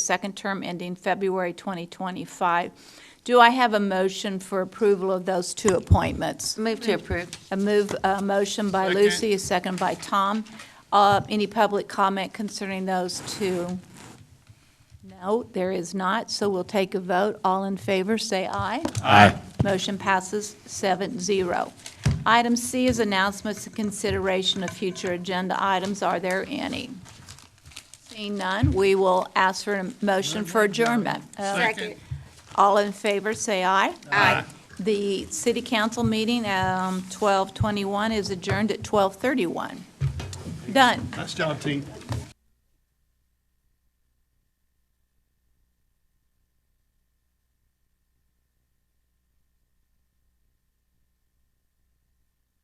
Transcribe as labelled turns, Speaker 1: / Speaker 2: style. Speaker 1: second term ending February 2025. Do I have a motion for approval of those two appointments?
Speaker 2: Move to approve.
Speaker 1: A move, a motion by
Speaker 3: Second.
Speaker 1: Lucy, a second by Tom. Uh, Any public comment concerning those two? No, there is not, so we'll take a vote. All in favor, say aye.
Speaker 3: Aye.
Speaker 1: Motion passes seven zero. Item C is announcements and consideration of future agenda items. Are there any? Seeing none, we will ask for a motion for adjournment. Uh,
Speaker 3: Second.
Speaker 1: All in favor, say aye.
Speaker 2: Aye.
Speaker 1: The city council meeting, um, 12:21, is adjourned at 12:31. Done.
Speaker 3: Nice job, team.